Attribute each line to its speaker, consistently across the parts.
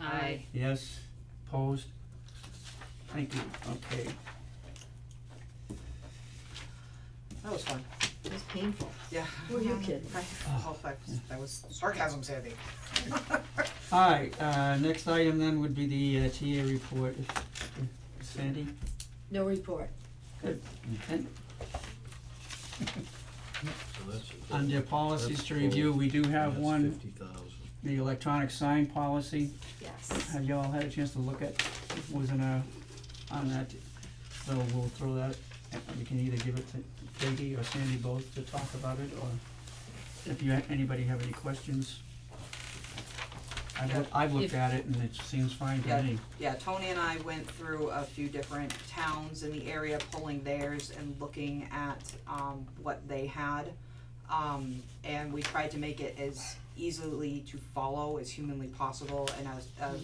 Speaker 1: Aye.
Speaker 2: Yes, opposed? Thank you, okay.
Speaker 3: That was fun.
Speaker 1: It was painful.
Speaker 3: Yeah.
Speaker 1: Were you kidding?
Speaker 3: I hope I, that was sarcasm savvy.
Speaker 2: Alright, uh, next item then would be the uh, TA report, If- if- Sandy?
Speaker 1: No report.
Speaker 4: Mm.
Speaker 2: And
Speaker 4: So that's-
Speaker 2: under policies
Speaker 4: that's
Speaker 2: to review,
Speaker 4: full.
Speaker 2: we do have
Speaker 4: That's
Speaker 2: one,
Speaker 4: 50,000.
Speaker 2: the electronic sign policy.
Speaker 1: Yes.
Speaker 2: Have y'all had a chance to look at, was in a, on that, so we'll throw that, and we can either give it to Peggy or Sandy both to talk about it, or if you, anybody have any questions. I've, loo- I've looked
Speaker 3: If-
Speaker 2: at it and it seems fine to
Speaker 3: Yeah.
Speaker 2: me.
Speaker 3: Yeah, Tony and I went through a few different towns in the area, pulling theirs and looking at, um, what they had. Um, and we tried to make it as easily to follow as humanly possible and as, a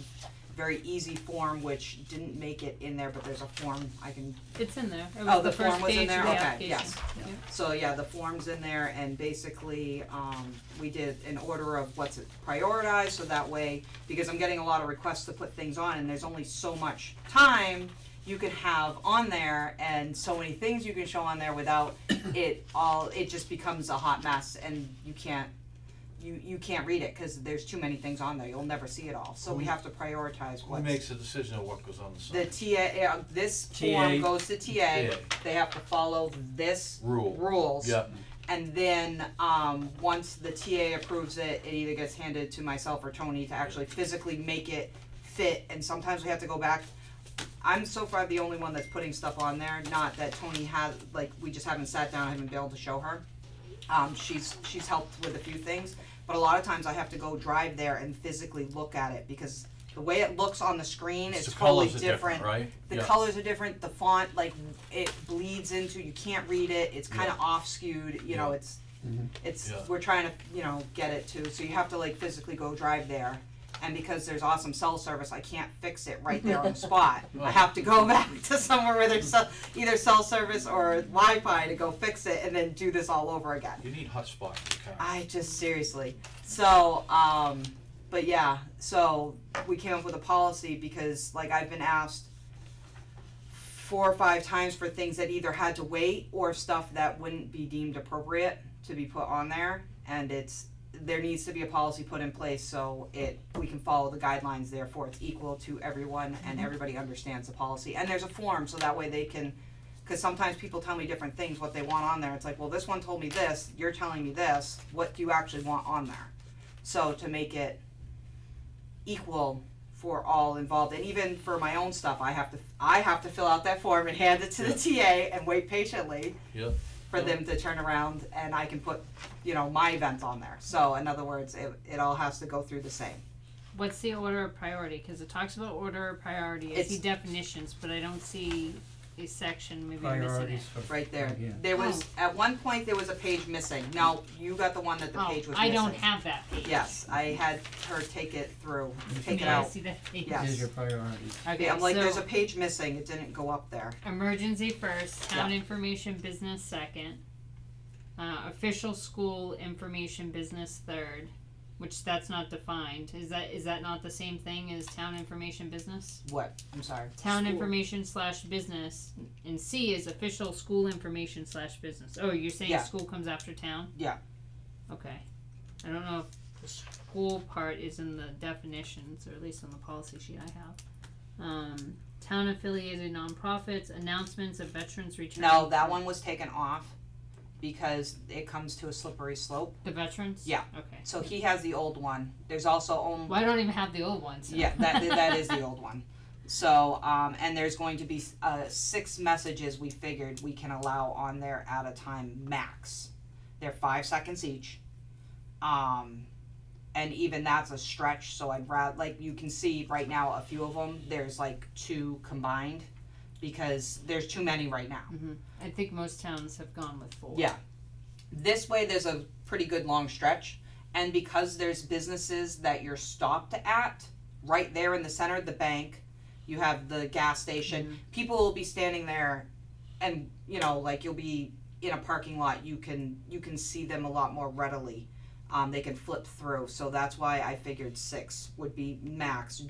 Speaker 3: very easy form, which didn't make it in there, but there's a form I can
Speaker 5: It's in there. It
Speaker 3: Oh,
Speaker 5: was
Speaker 3: the
Speaker 5: the
Speaker 3: form
Speaker 5: first
Speaker 3: was in
Speaker 5: page of the
Speaker 3: there? Okay,
Speaker 5: application.
Speaker 3: yes. So yeah, the form's in there and basically, um, we did an order of what's prioritized, so that way, because I'm getting a lot of requests to put things on and there's only so much time you can have on there and so many things you can show on there without it all, it just becomes a hot mess and you can't, you, you can't read it, cause there's too many things on there, you'll never see it all, so we have to prioritize
Speaker 4: Who
Speaker 3: what's.
Speaker 4: makes the decision of what goes on the
Speaker 3: The
Speaker 4: sign?
Speaker 3: TA, uh, this
Speaker 2: TA.
Speaker 3: form goes to TA,
Speaker 4: TA.
Speaker 3: they have to follow this
Speaker 4: Rule.
Speaker 3: rules.
Speaker 4: Yeah,
Speaker 3: And then, um, once the TA approves it, it either gets handed to myself or Tony to actually physically make it fit, and sometimes we have to go back. I'm so far the only one that's putting stuff on there, not that Tony has, like, we just haven't sat down, I haven't been able to show her. Um, she's, she's helped with a few things, but a lot of times I have to go drive there and physically look at it, because the way it looks on the screen
Speaker 4: It's
Speaker 3: is
Speaker 4: the
Speaker 3: totally
Speaker 4: colors are different, right?
Speaker 3: the
Speaker 4: Yeah.
Speaker 3: colors are different the font like it bleeds into you can't read it it's kind of off skewed you know
Speaker 4: Yeah.
Speaker 3: it's it's
Speaker 4: Yeah.
Speaker 3: we're trying to you know get it to so you have to like physically go drive there and because there's awesome cell service i can't fix it right there on the spot i
Speaker 4: Well.
Speaker 3: have to go back to somewhere where there's cell, either cell service or wi-fi to go fix it and then do this all over again
Speaker 4: You need hotspot in your car.
Speaker 3: I just seriously. So, um, but yeah, so we came up with a policy because like I've been asked four or five times for things that either had to wait or stuff that wouldn't be deemed appropriate to be put on there and it's there needs to be a policy put in place so it we can follow the guidelines therefore it's equal to everyone and everybody understands the policy and there's a form so that way they can because sometimes people tell me different things what they want on there it's like well this one told me this you're telling me this what do you actually want on there so to make it equal for all involved and even for my own stuff i have to i have to fill out that form and hand it to the ta and wait patiently
Speaker 4: Yep.
Speaker 3: for them to turn around and I can put, you know, my event on there. So in other words, it, it all has to go through the same.
Speaker 5: What's the order of priority? Because it talks about order of priority. I
Speaker 3: It's-
Speaker 5: see definitions, but I don't see a section. Maybe I'm missing it.
Speaker 2: Priorities for.
Speaker 3: Right there.
Speaker 2: Yeah.
Speaker 3: There was,
Speaker 5: Oh.
Speaker 3: at one point, there was a page missing. No, you got the one that the
Speaker 5: oh,
Speaker 3: page was
Speaker 5: I
Speaker 3: missing.
Speaker 5: don't have that page.
Speaker 3: Yes, I had her take it through, take
Speaker 5: Maybe
Speaker 3: it
Speaker 5: I
Speaker 3: out.
Speaker 5: see that page.
Speaker 3: Yeah.
Speaker 2: Here's your priorities.
Speaker 5: Okay,
Speaker 3: Yeah, I'm like,
Speaker 5: so
Speaker 3: there's a page missing. It didn't go up there.
Speaker 5: emergency first, town information business second, uh, official school information business third, which that's not defined. Is that is that not the same thing as town information business?
Speaker 3: What? I'm sorry.
Speaker 5: Town
Speaker 3: School.
Speaker 5: information slash business, and C is official school information slash business. Oh, you're saying
Speaker 3: Yeah.
Speaker 5: school comes after town?
Speaker 3: Yeah.
Speaker 5: Okay. I don't know if the school part is in the definitions, or at least on the policy sheet I have. Um, town affiliated nonprofits, announcements of veterans returning.
Speaker 3: No, that one was taken off because it comes to a slippery slope.
Speaker 5: The veterans?
Speaker 3: Yeah.
Speaker 5: Okay.
Speaker 3: So he has the old one. There's also only.
Speaker 5: Well, I don't even have the old ones. so.
Speaker 3: Yeah, that that is the old one. So, um, and there's going to be uh, six messages we figured we can allow on there at a time max. They're five seconds each. Um, and even that's a stretch. So I'd rather like you can see right now a few of them. There's like two combined because there's too many right now.
Speaker 5: I think most towns have gone with four.
Speaker 3: Yeah. This way, there's a pretty good long stretch, and because there's businesses that you're stopped at, right there in the center of the bank, you have the gas station. People will be standing there, and you know, like you'll be in a parking lot. You can you can see them a lot more readily. Um, they can flip through, so that's why I figured six would be max.